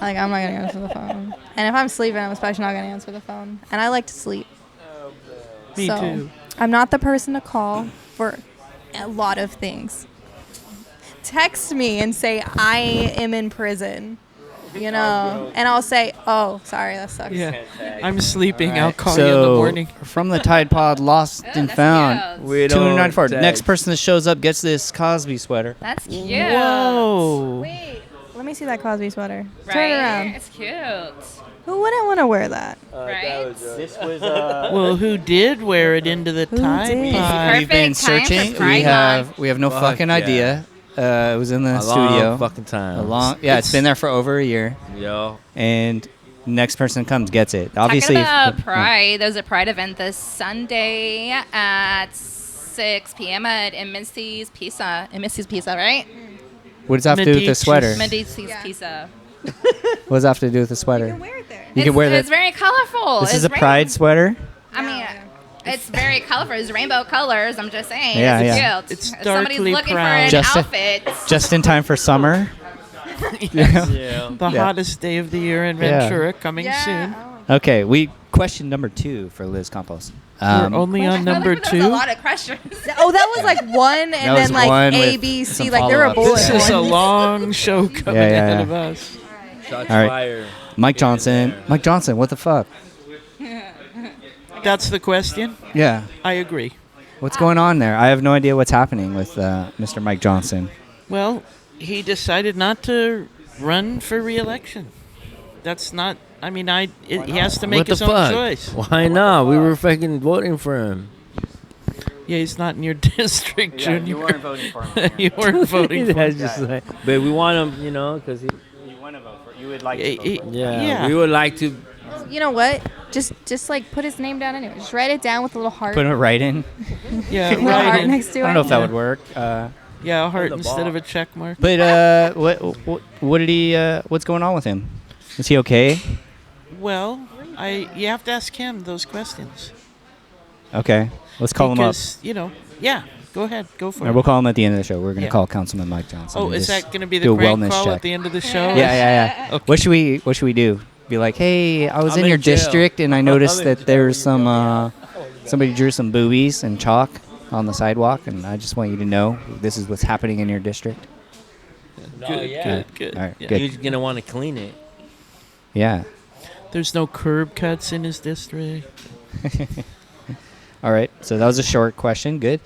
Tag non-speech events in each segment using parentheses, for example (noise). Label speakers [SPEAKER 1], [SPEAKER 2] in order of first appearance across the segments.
[SPEAKER 1] Like I'm not gonna answer the phone. And if I'm sleeping, I'm especially not gonna answer the phone. And I like to sleep.
[SPEAKER 2] Me
[SPEAKER 1] so
[SPEAKER 2] too.
[SPEAKER 1] I'm not the person to call for a lot of things. Text me and say I am in prison. You know, and I'll say, "Oh, sorry, that sucks."
[SPEAKER 2] Yeah. I'm sleeping. I'll
[SPEAKER 3] Alright,
[SPEAKER 2] call
[SPEAKER 3] so
[SPEAKER 2] you in the morning.
[SPEAKER 3] From the Tide Pod, lost and
[SPEAKER 4] Oh, that's
[SPEAKER 3] found.
[SPEAKER 4] cute.
[SPEAKER 5] We
[SPEAKER 3] Two
[SPEAKER 5] don't
[SPEAKER 3] hundred ninety-four.
[SPEAKER 5] text.
[SPEAKER 3] Next person that shows up gets this Cosby sweater.
[SPEAKER 4] That's cute.
[SPEAKER 2] Whoa.
[SPEAKER 1] Wait, let me see that Cosby sweater.
[SPEAKER 4] Right?
[SPEAKER 1] Turn around.
[SPEAKER 4] It's cute.
[SPEAKER 1] Who wouldn't want to wear that?
[SPEAKER 5] Uh,
[SPEAKER 4] Right?
[SPEAKER 5] that was, uh,
[SPEAKER 3] was
[SPEAKER 2] Well, who did wear it into the
[SPEAKER 1] Who
[SPEAKER 2] time
[SPEAKER 1] did?
[SPEAKER 3] (laughs)
[SPEAKER 2] pod?
[SPEAKER 3] we've Uh, been
[SPEAKER 4] Perfect time for
[SPEAKER 3] searching.
[SPEAKER 4] Pride
[SPEAKER 3] We
[SPEAKER 4] Month.
[SPEAKER 3] have we have no
[SPEAKER 5] Fuck
[SPEAKER 3] fucking
[SPEAKER 5] yeah.
[SPEAKER 3] idea. Uh, it was in the
[SPEAKER 5] a
[SPEAKER 3] studio.
[SPEAKER 5] long fucking time.
[SPEAKER 3] a long. Yeah, it's been there for over a year,
[SPEAKER 5] Yo,
[SPEAKER 3] and next person comes gets it. Obviously,
[SPEAKER 4] Talking about Pride, there's a Pride event this Sunday at 6 p.m. at in Misty's Pizza. In Misty's Pizza, right?
[SPEAKER 3] what does that have to do with the
[SPEAKER 2] Medici's-
[SPEAKER 3] sweater? What
[SPEAKER 4] Misty's
[SPEAKER 1] Yeah.
[SPEAKER 4] Pizza.
[SPEAKER 3] does that have to do with the
[SPEAKER 1] You
[SPEAKER 3] sweater?
[SPEAKER 1] can wear it there.
[SPEAKER 3] You can
[SPEAKER 4] It's-
[SPEAKER 3] wear
[SPEAKER 4] It's
[SPEAKER 3] this.
[SPEAKER 4] very colorful.
[SPEAKER 3] This
[SPEAKER 4] it's
[SPEAKER 3] is a
[SPEAKER 4] rain-
[SPEAKER 3] pride sweater.
[SPEAKER 4] I mean, it's very colorful. It's rainbow colors. I'm just saying.
[SPEAKER 3] Yeah,
[SPEAKER 4] it's
[SPEAKER 3] yeah.
[SPEAKER 4] cute.
[SPEAKER 2] It's
[SPEAKER 4] If Somebody's
[SPEAKER 2] darkly
[SPEAKER 4] looking
[SPEAKER 2] proud.
[SPEAKER 4] for an
[SPEAKER 3] Just a-
[SPEAKER 4] outfit. (laughs)
[SPEAKER 3] just in time for summer.
[SPEAKER 5] yeah.
[SPEAKER 2] (laughs) The
[SPEAKER 3] Yeah.
[SPEAKER 2] hottest day of the year in
[SPEAKER 3] Yeah.
[SPEAKER 2] Ventura coming soon.
[SPEAKER 1] Yeah. oh.
[SPEAKER 3] Okay, we question number two for Liz Campos. Um,
[SPEAKER 2] We're only on
[SPEAKER 4] Um, I feel like
[SPEAKER 2] number
[SPEAKER 4] There's a
[SPEAKER 2] two.
[SPEAKER 4] lot of questions.
[SPEAKER 1] Th- Oh, that was like one, and
[SPEAKER 3] That was
[SPEAKER 1] then like
[SPEAKER 3] one
[SPEAKER 1] A,
[SPEAKER 3] with
[SPEAKER 1] B, C.
[SPEAKER 3] some
[SPEAKER 1] Like there were
[SPEAKER 3] follow-ups.
[SPEAKER 1] bullet
[SPEAKER 2] This is a
[SPEAKER 1] points.
[SPEAKER 2] long
[SPEAKER 4] (laughs)
[SPEAKER 2] show coming
[SPEAKER 3] yeah,
[SPEAKER 2] ahead
[SPEAKER 3] yeah.
[SPEAKER 2] of us.
[SPEAKER 5] Shots
[SPEAKER 3] All right.
[SPEAKER 5] fired.
[SPEAKER 3] Mike Johnson. Mike Johnson, what the fuck?
[SPEAKER 2] That's the question.
[SPEAKER 3] Yeah.
[SPEAKER 2] I agree.
[SPEAKER 3] What's going on there? I have no idea what's happening with uh, Mr. Mike Johnson.
[SPEAKER 2] Well, he decided not to run for reelection. That's not. I mean, I. It, he has to make
[SPEAKER 5] what
[SPEAKER 2] his
[SPEAKER 5] the
[SPEAKER 2] own
[SPEAKER 5] fuck?
[SPEAKER 2] choice.
[SPEAKER 5] Why not? We were fucking voting for him.
[SPEAKER 2] Yeah, he's not in your (laughs) district, Junior.
[SPEAKER 3] voting for
[SPEAKER 2] (laughs) you
[SPEAKER 3] (laughs)
[SPEAKER 2] weren't voting for
[SPEAKER 5] That's
[SPEAKER 2] him.
[SPEAKER 5] just like, but we want him, you know, because he.
[SPEAKER 3] You want to vote for. You would like
[SPEAKER 2] Yeah, he-
[SPEAKER 5] Yeah,
[SPEAKER 2] Yeah.
[SPEAKER 5] we would like to.
[SPEAKER 1] You know what? Just just like put his name down anyway. Just write it down with a little heart.
[SPEAKER 3] Put it right in.
[SPEAKER 2] yeah,
[SPEAKER 1] little
[SPEAKER 2] right.
[SPEAKER 1] heart
[SPEAKER 2] and-
[SPEAKER 1] next to
[SPEAKER 3] I
[SPEAKER 1] it.
[SPEAKER 3] don't know if that
[SPEAKER 2] Yeah.
[SPEAKER 3] would work. Uh,
[SPEAKER 2] yeah, a heart
[SPEAKER 5] On the
[SPEAKER 2] instead
[SPEAKER 5] ball.
[SPEAKER 2] of a check mark.
[SPEAKER 3] but uh, what, what what did he? Uh, what's going on with him? Is he okay?
[SPEAKER 2] Well, I. You have to ask him those questions.
[SPEAKER 3] Okay, let's call him
[SPEAKER 2] because, You know. Yeah. Go ahead. Go
[SPEAKER 3] up.
[SPEAKER 2] for
[SPEAKER 3] All right,
[SPEAKER 2] it.
[SPEAKER 3] we'll call him at the end of the show. We're gonna
[SPEAKER 2] Yeah.
[SPEAKER 3] call Councilman Mike Johnson.
[SPEAKER 2] oh,
[SPEAKER 3] and
[SPEAKER 2] is
[SPEAKER 3] just
[SPEAKER 2] that going to be
[SPEAKER 3] do
[SPEAKER 2] the
[SPEAKER 3] a
[SPEAKER 2] prank
[SPEAKER 3] wellness
[SPEAKER 2] call
[SPEAKER 3] check.
[SPEAKER 2] at the end of the show?
[SPEAKER 3] (laughs) yeah, yeah, yeah. What should we What should we do? Be like, hey, I was
[SPEAKER 5] I'm
[SPEAKER 3] in
[SPEAKER 5] in
[SPEAKER 3] your
[SPEAKER 5] jail.
[SPEAKER 3] district and I
[SPEAKER 5] I'm
[SPEAKER 3] noticed
[SPEAKER 5] in
[SPEAKER 3] that
[SPEAKER 5] jail,
[SPEAKER 3] there's some uh, somebody drew some boobies and chalk on the sidewalk, and I just want you to know this is what's happening in your district.
[SPEAKER 2] Good.
[SPEAKER 5] Oh, yeah.
[SPEAKER 2] Good. Good.
[SPEAKER 3] All right,
[SPEAKER 2] yeah.
[SPEAKER 3] good.
[SPEAKER 5] He's gonna want to clean it.
[SPEAKER 3] Yeah.
[SPEAKER 2] There's no curb cuts in his district.
[SPEAKER 3] All right. So that was a short question. Good.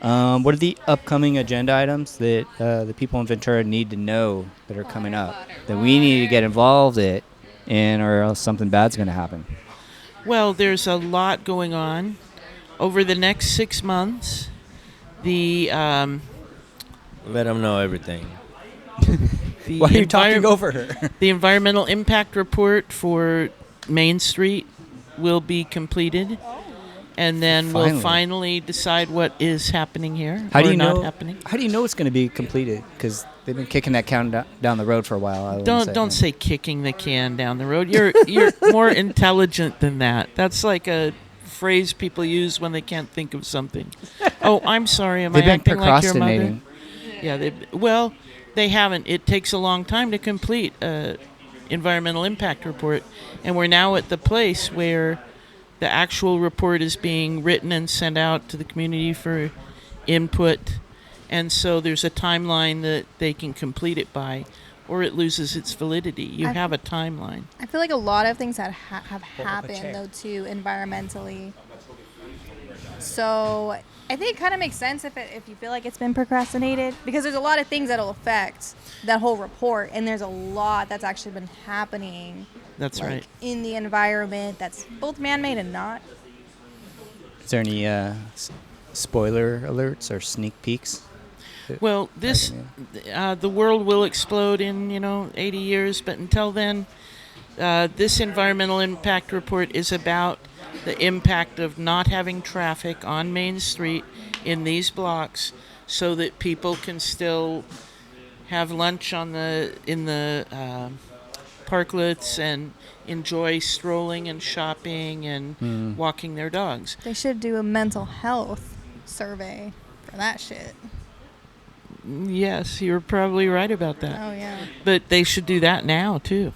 [SPEAKER 3] Um, what are the upcoming agenda items that uh, the people in Ventura need to know that are coming up that we need to get involved in, and or else something bad's going to happen?
[SPEAKER 2] Well, there's a lot going on. Over the next six months, the um,
[SPEAKER 5] Let him know everything.
[SPEAKER 2] the,
[SPEAKER 3] Why are you
[SPEAKER 2] envir-
[SPEAKER 3] talking over her?
[SPEAKER 2] the environmental impact report for Main Street will be completed, and then we'll
[SPEAKER 3] Finally.
[SPEAKER 2] finally decide what is happening here.
[SPEAKER 3] How
[SPEAKER 2] or
[SPEAKER 3] do you
[SPEAKER 2] not
[SPEAKER 3] know?
[SPEAKER 2] happening?
[SPEAKER 3] How do you know it's going to be completed? Because they've been kicking that count do- down the road for a while. I wouldn't
[SPEAKER 2] Don't
[SPEAKER 3] say.
[SPEAKER 2] don't say kicking the can down the road. You're
[SPEAKER 3] (laughs)
[SPEAKER 2] you're more intelligent than that. That's like a phrase people use when they can't think of something. (laughs) Oh, I'm sorry. Am
[SPEAKER 3] They've
[SPEAKER 2] I
[SPEAKER 3] been
[SPEAKER 2] acting like your mother?
[SPEAKER 3] procrastinating.
[SPEAKER 2] Yeah, they well, they haven't. It takes a long time to complete a environmental impact report, and we're now at the place where the actual report is being written and sent out to the community for input, and so there's a timeline that they can complete it by, or it loses its validity. You
[SPEAKER 1] I-
[SPEAKER 2] have a timeline.
[SPEAKER 1] I feel like a lot of things that ha- have happened though too environmentally. So I think it kind of makes sense if it, if you feel like it's been procrastinated because there's a lot of things that'll affect that whole report and there's a lot that's actually been happening
[SPEAKER 2] That's
[SPEAKER 1] like
[SPEAKER 2] right.
[SPEAKER 1] in the environment that's both man-made and not.
[SPEAKER 3] Is there any uh, s- spoiler alerts or sneak peeks?
[SPEAKER 2] Well, this uh, the world will explode in you know 80 years, but until then, uh, this environmental impact report is about the impact of not having traffic on Main Street in these blocks, so that people can still have lunch on the in the um parklets and enjoy strolling and shopping and walking their dogs.
[SPEAKER 1] They should do a mental health survey for that shit.
[SPEAKER 2] Yes, you're probably right about that,
[SPEAKER 1] Oh yeah.
[SPEAKER 2] but they should do that now too.